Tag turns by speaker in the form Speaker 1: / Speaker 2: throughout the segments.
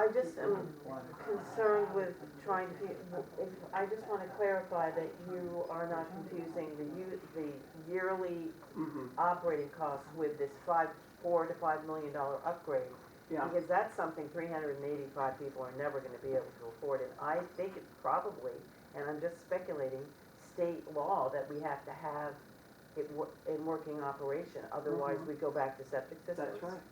Speaker 1: I just am concerned with trying to, if- I just want to clarify that you are not confusing the u- the yearly
Speaker 2: Mhm.
Speaker 1: operating costs with this five, four to five million dollar upgrade.
Speaker 2: Yeah,
Speaker 1: Because that's something three hundred and eighty-five people are never gonna be able to afford, and I think it's probably, and I'm just speculating, state law that we have to have it wo- in working operation, otherwise we go back to septic systems.
Speaker 2: Mm-hmm. that's right.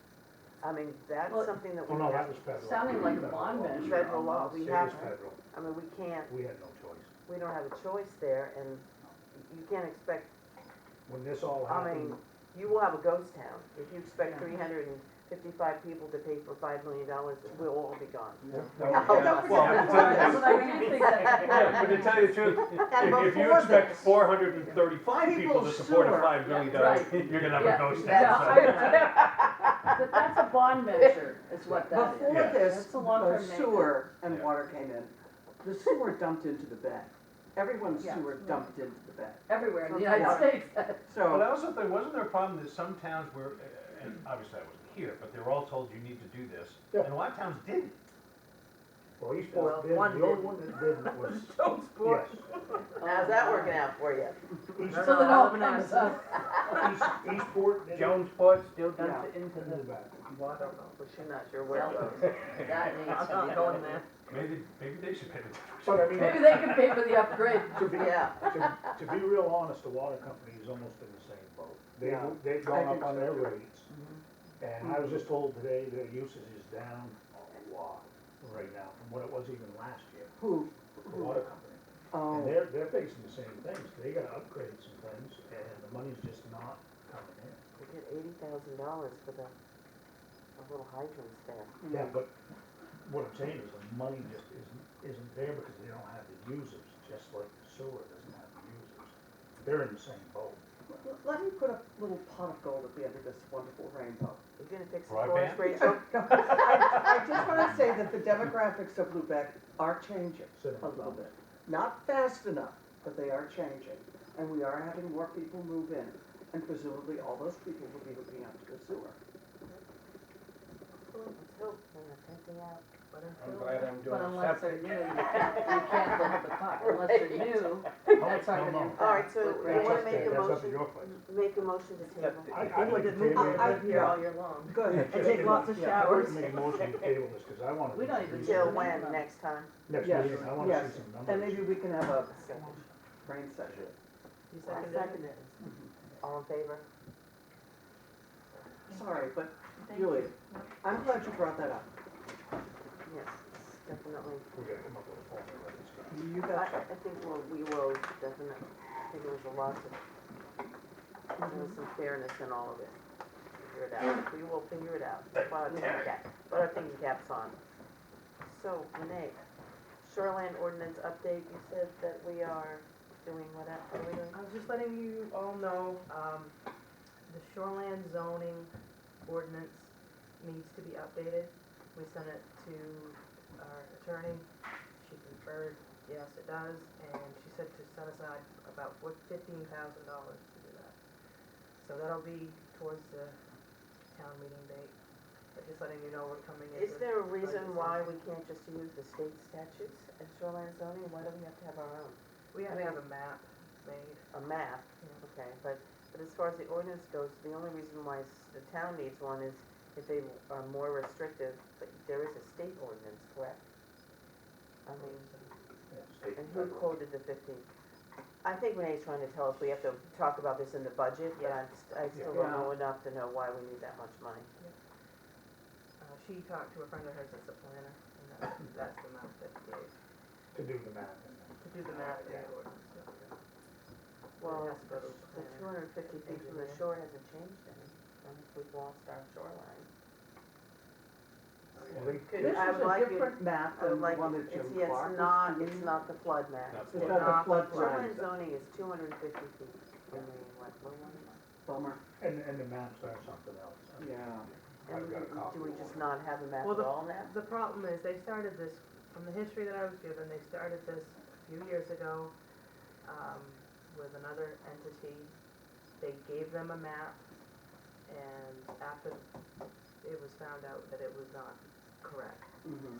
Speaker 1: I mean, that's
Speaker 3: Well-
Speaker 1: something that
Speaker 4: Oh,
Speaker 1: we
Speaker 4: no, that
Speaker 1: have,
Speaker 4: was federal.
Speaker 3: Sounding like a
Speaker 4: Federal
Speaker 3: bond
Speaker 4: law.
Speaker 3: venture.
Speaker 1: federal law, we
Speaker 4: It
Speaker 1: have,
Speaker 4: is federal.
Speaker 1: I mean, we can't,
Speaker 4: We had no choice.
Speaker 1: we don't have a choice there, and you can't expect,
Speaker 4: When this all
Speaker 1: I mean,
Speaker 4: happened,
Speaker 1: you will have a ghost town. If you expect
Speaker 3: Yeah.
Speaker 1: three hundred and fifty-five people to pay for five million dollars, we'll all be gone.
Speaker 2: Yeah.
Speaker 4: no,
Speaker 1: Oh, don't
Speaker 4: yeah,
Speaker 1: forget that.
Speaker 5: well, to tell you the
Speaker 3: That's what I did think
Speaker 5: Yeah, but to
Speaker 3: that.
Speaker 5: tell you the
Speaker 1: And
Speaker 5: truth, if, if you
Speaker 1: before
Speaker 5: expect
Speaker 1: this-
Speaker 5: four hundred and thirty-five people to
Speaker 2: People's
Speaker 5: support a
Speaker 2: sewer.
Speaker 5: five million
Speaker 3: Yeah,
Speaker 5: dollar,
Speaker 3: right.
Speaker 5: you're gonna have
Speaker 3: Yeah,
Speaker 5: a ghost
Speaker 3: yeah.
Speaker 5: town.
Speaker 3: But that's a bond measure, is what that is.
Speaker 2: Before this,
Speaker 3: That's a long-term
Speaker 2: the
Speaker 3: maintenance.
Speaker 2: sewer and
Speaker 5: Yeah.
Speaker 2: water came in. The sewer dumped into the bed. Everyone's
Speaker 3: Yeah.
Speaker 2: sewer dumped into the bed.
Speaker 3: Everywhere in the United States.
Speaker 5: But I
Speaker 2: So,
Speaker 5: also think, wasn't there a problem that some towns were, and obviously I wasn't here, but they were all told you need to do this,
Speaker 4: Yeah.
Speaker 5: and a lot of towns didn't.
Speaker 4: well,
Speaker 1: Well,
Speaker 4: Eastport did, the
Speaker 1: one
Speaker 4: only
Speaker 1: did.
Speaker 4: one that didn't was, yes.
Speaker 1: How's that working out for you?
Speaker 4: East-
Speaker 3: So that all comes up.
Speaker 4: East- Eastport did. it,
Speaker 5: Jonesport still
Speaker 2: did. Yeah.
Speaker 3: into
Speaker 4: and the back.
Speaker 1: Well, I don't know, but you're not sure where
Speaker 3: Well,
Speaker 1: it goes.
Speaker 3: That needs to be done.
Speaker 5: Maybe, maybe they should pay the difference.
Speaker 4: But I mean,
Speaker 3: Maybe they can pay for the upgrade.
Speaker 4: to be,
Speaker 1: Yeah,
Speaker 4: to, to be real honest, the water company is almost in the same boat. They,
Speaker 2: Yeah.
Speaker 4: they've
Speaker 2: I
Speaker 4: gone
Speaker 2: think
Speaker 4: up on
Speaker 2: so
Speaker 4: their
Speaker 2: too.
Speaker 4: rates.
Speaker 1: Mm-hmm.
Speaker 4: And I was just told today their usage is down a lot right now from what it was even last year,
Speaker 2: who,
Speaker 4: the water company. And
Speaker 2: oh,
Speaker 4: they're, they're facing the same things, they gotta upgrade some things, and the money's just not coming in.
Speaker 1: we get eighty thousand dollars for the, the little hydrants there.
Speaker 2: Mm.
Speaker 4: Yeah, but what I'm saying is the money just isn't, isn't there because they don't have the users, just like the sewer doesn't have the users. They're in the same boat.
Speaker 2: L- let me put a little pot of gold at the end of this wonderful rainbow.
Speaker 1: You gonna fix it for us,
Speaker 5: Broadband?
Speaker 1: Rachel?
Speaker 2: I, I just wanna say that the demographics of Lubec are changing.
Speaker 4: So,
Speaker 2: a little bit. Not fast enough, but they are changing. And we are having more people move in, and presumably all those people will be hooking up to the sewer.
Speaker 1: Let's hope we're not taking out.
Speaker 6: I'm glad I'm doing
Speaker 3: But unless
Speaker 6: septic.
Speaker 3: they're new, you can't, you can't limit the pot. Unless they're new, that's
Speaker 4: Oh, no,
Speaker 3: not
Speaker 4: no.
Speaker 3: gonna impact.
Speaker 1: All right, so you
Speaker 3: what Rachel
Speaker 1: wanna
Speaker 4: That's
Speaker 1: make a
Speaker 4: up to- That's up to
Speaker 3: said.
Speaker 1: motion?
Speaker 4: your place.
Speaker 1: Make a motion to table.
Speaker 4: I, I like to
Speaker 1: Move
Speaker 4: table
Speaker 1: it. I've
Speaker 4: it.
Speaker 1: been here
Speaker 2: yeah.
Speaker 1: all year long.
Speaker 2: Good.
Speaker 4: Yeah.
Speaker 2: And take lots of
Speaker 4: I'd like
Speaker 2: showers.
Speaker 4: to make a motion to table this, cause I wanna.
Speaker 3: We don't even-
Speaker 1: Till when, next time?
Speaker 4: Next
Speaker 2: Yes,
Speaker 4: meeting, I wanna
Speaker 2: yes.
Speaker 4: see some
Speaker 2: And
Speaker 4: numbers.
Speaker 2: maybe we can have a
Speaker 1: Discussion.
Speaker 2: brain session.
Speaker 1: You
Speaker 3: I
Speaker 1: seconded it? All in favor?
Speaker 2: Sorry, but really, I'm glad you brought that up.
Speaker 1: Yes, definitely.
Speaker 4: We gotta come up with a formula for this guy.
Speaker 2: You
Speaker 1: I,
Speaker 2: got
Speaker 1: I think we'll, we will definitely, I think there's a lot of, there was some fairness in all of it. Figure it out, we will figure it out, put our thinking cap, put our thinking caps on. So, Renee, shoreline ordinance update, you said that we are doing what, up- what are we doing?
Speaker 7: I was just letting you all know, um, the shoreland zoning ordinance needs to be updated. We sent it to our attorney, she confirmed, yes, it does, and she said to set aside about fifteen thousand dollars to do that. So that'll be towards the town meeting date, but just letting you know we're coming in.
Speaker 1: Is
Speaker 7: with-
Speaker 1: there a reason why we can't just use the state statutes as shoreline zoning, why do we have to have our own?
Speaker 7: We have, we have a map made.
Speaker 1: a map, okay, but, but as far as the ordinance goes, the only reason why s- the town needs one is if they are more restrictive, but there is a state ordinance, correct? I mean,
Speaker 4: Yeah, state
Speaker 1: and who
Speaker 4: federal.
Speaker 1: quoted the fifteen? I think Renee's trying to tell us we have to talk about this in the budget, but I'm, st- I still don't know enough to know why we need that much money.
Speaker 7: Uh, she talked to a friend of hers that's a planner, and that's, that's the map that they gave,
Speaker 4: To do the math and then.
Speaker 7: to do the math and the ordinance. so.
Speaker 1: Well,
Speaker 7: It has to go
Speaker 1: the
Speaker 7: to the
Speaker 1: two
Speaker 7: planner.
Speaker 1: hundred and fifty feet from the shore hasn't changed any, since we've lost our shoreline.
Speaker 4: Well, they-
Speaker 2: it.
Speaker 1: Could,
Speaker 2: This
Speaker 1: I
Speaker 2: is
Speaker 1: would
Speaker 2: a
Speaker 1: like you,
Speaker 2: different map
Speaker 1: I would
Speaker 2: than the
Speaker 1: Um, like,
Speaker 2: one that Jim
Speaker 1: it's, yeah,
Speaker 2: Clark was
Speaker 1: it's not,
Speaker 2: doing.
Speaker 1: it's not the flood map.
Speaker 5: Not
Speaker 2: It's
Speaker 5: flood.
Speaker 2: not the
Speaker 1: Shoreline
Speaker 2: floodplain.
Speaker 1: zoning is two hundred and fifty feet from the wet wetland.
Speaker 2: Bummer.
Speaker 4: And, and the maps are something else. I mean,
Speaker 2: Yeah.
Speaker 4: I've got a
Speaker 1: And
Speaker 4: copy.
Speaker 1: do we
Speaker 4: of
Speaker 1: just
Speaker 4: one.
Speaker 1: not have a map
Speaker 7: Well,
Speaker 1: at
Speaker 7: the-
Speaker 1: all now?
Speaker 7: The problem is, they started this, from the history that I was given, they started this a few years ago, um, with another entity. They gave them a map, and after it was found out that it was not correct.
Speaker 2: Mhm.